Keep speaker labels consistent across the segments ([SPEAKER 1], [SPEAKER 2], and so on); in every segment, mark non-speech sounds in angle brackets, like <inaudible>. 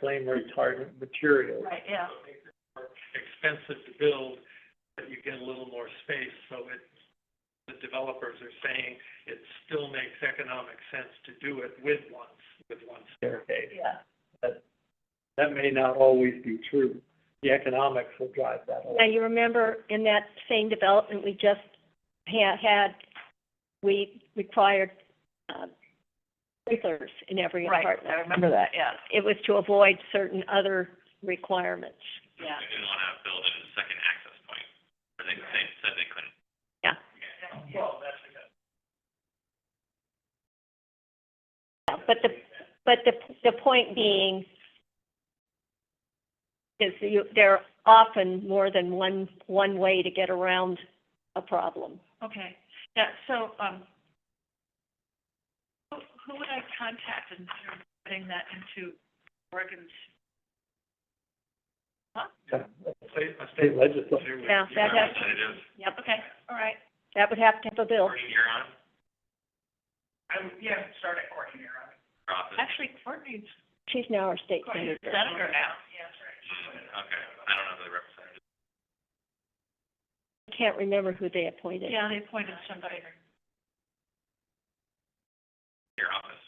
[SPEAKER 1] flame retardant material.
[SPEAKER 2] Right, yeah.
[SPEAKER 1] Expensive to build, but you get a little more space, so it, the developers are saying it still makes economic sense to do it with one, with one staircase.
[SPEAKER 2] Yeah.
[SPEAKER 1] That may not always be true. The economics will drive that a
[SPEAKER 3] Now, you remember in that same development we just ha- had, we required, uh, sprinklers in every
[SPEAKER 2] Right,
[SPEAKER 3] apartment.
[SPEAKER 2] I remember that, yeah,
[SPEAKER 3] It was to avoid certain other requirements.
[SPEAKER 2] yeah.
[SPEAKER 4] They didn't wanna build it as a second access point, or they, they said they couldn't.
[SPEAKER 1] Well, that's a good.
[SPEAKER 3] But the, but the, the point being is that you, there are often more than one, one way to get around a problem.
[SPEAKER 2] Okay, yeah, so, um, who, who would I contact in terms of putting that into Oregon's? Huh?
[SPEAKER 1] A state, a state legislature would.
[SPEAKER 3] Yeah, that has,
[SPEAKER 4] Representative,
[SPEAKER 3] yep,
[SPEAKER 2] Okay, all right.
[SPEAKER 3] that would have to have a bill.
[SPEAKER 4] Courtney, you're on,
[SPEAKER 2] I would, yeah, start at Courtney,
[SPEAKER 4] Profit.
[SPEAKER 2] Actually, Courtney's,
[SPEAKER 3] She's now our state
[SPEAKER 2] Courtney's
[SPEAKER 3] senator.
[SPEAKER 2] senator now. Yeah, that's right.
[SPEAKER 4] Mm, Okay, I don't know who the representative is.
[SPEAKER 3] I can't remember who they appointed.
[SPEAKER 2] Yeah, they appointed somebody.
[SPEAKER 4] your office.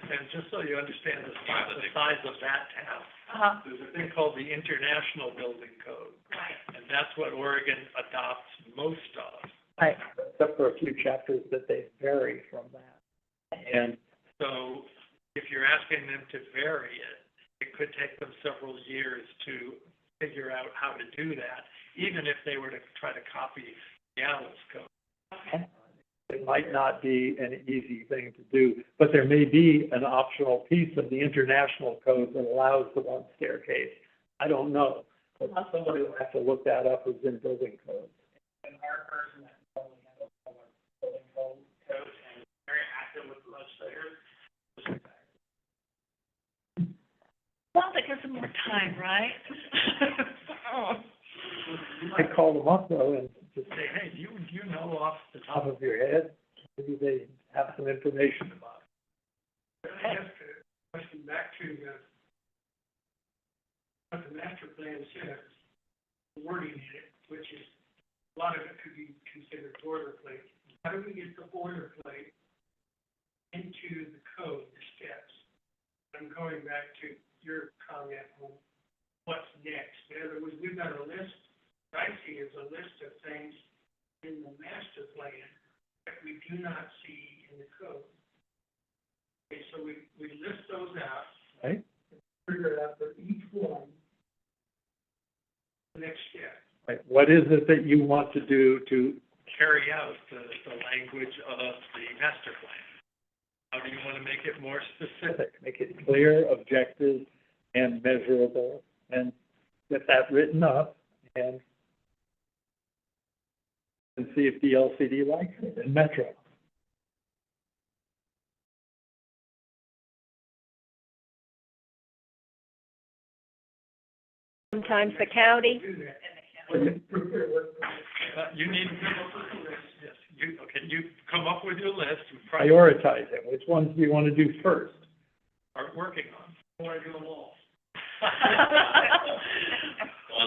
[SPEAKER 1] And just so you understand the size, the size of that town,
[SPEAKER 2] Uh-huh,
[SPEAKER 1] there's a thing called the International Building Code,
[SPEAKER 2] right.
[SPEAKER 1] and that's what Oregon adopts most of.
[SPEAKER 2] Right.
[SPEAKER 1] Except for a few chapters that they vary from that. And so if you're asking them to vary it, it could take them several years to figure out how to do that, even if they were to try to copy Seattle's code. It might not be an easy thing to do, but there may be an optional piece of the international code that allows the one staircase. I don't know, but somebody will have to look that up who's in building codes. And our person that probably handles all our building code, codes and very active with legislators.
[SPEAKER 2] Well, that gives them more time, right? <laughs> Oh.
[SPEAKER 1] You might call them up though and just say, hey, you, you know off the top of your head, maybe they have some information about it. I guess the question back to the, what the master plan says, wording in it, which is, a lot of it could be considered boilerplate. How do we get the boilerplate into the code, the steps? I'm going back to your comment on what's next. In other words, we've got a list I see is a list of things in the master plan that we do not see in the code. Okay, so we, we list those out. Right. Figure it out for each one. The next step. Right, what is it that you want to do to? Carry out the, the language of the master plan. How do you wanna make it more specific? Make it clear, objective, and measurable, and get that written up, and and see if the LCD likes it, and Metro.
[SPEAKER 3] Sometimes the county,
[SPEAKER 1] Uh, You need, yes, you, okay, you come up with your list. Prioritize it, which ones do you want to do first? Start working on. Or do them all.
[SPEAKER 4] Well,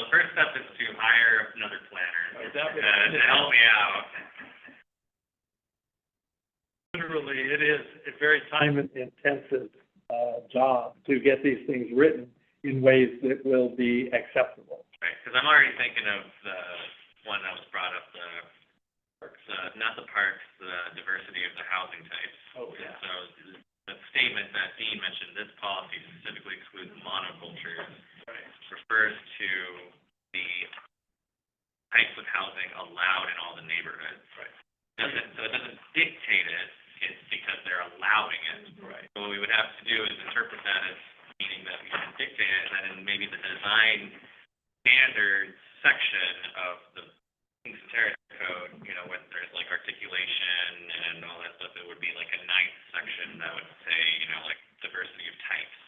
[SPEAKER 4] the first step is to hire another planner, Uh,
[SPEAKER 1] Right,
[SPEAKER 4] to,
[SPEAKER 1] that would-
[SPEAKER 4] to help me out.
[SPEAKER 1] Literally, it is a very time intensive, uh, job to get these things written in ways that will be acceptable.
[SPEAKER 4] Right, because I'm already thinking of the one that was brought up, the, the, not the parks, the diversity of the housing types.
[SPEAKER 1] Oh,
[SPEAKER 4] And so the statement that Dean mentioned, this policy specifically excludes monocultures, refers to the types of housing allowed in all the neighborhoods.
[SPEAKER 1] Right.
[SPEAKER 4] Doesn't, so it doesn't dictate it, it's because they're allowing it.
[SPEAKER 1] Right.
[SPEAKER 4] So What we would have to do is interpret that as meaning that we can dictate it, and then in maybe the design standards section of the Kings and Terrace Code, you know, when there's like articulation and all that stuff, it would be like a ninth section that would say, you know, like diversity of types.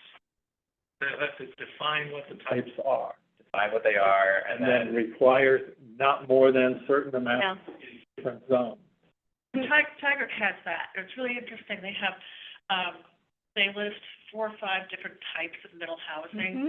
[SPEAKER 1] That's to define what the types are.
[SPEAKER 4] Define what they are,
[SPEAKER 1] and then requires not more than certain amount
[SPEAKER 3] yeah.
[SPEAKER 1] in different zones.
[SPEAKER 2] Tiger, Tiger has that. It's really interesting. They have, um, they list four or five different types of middle housing.
[SPEAKER 3] Mhm.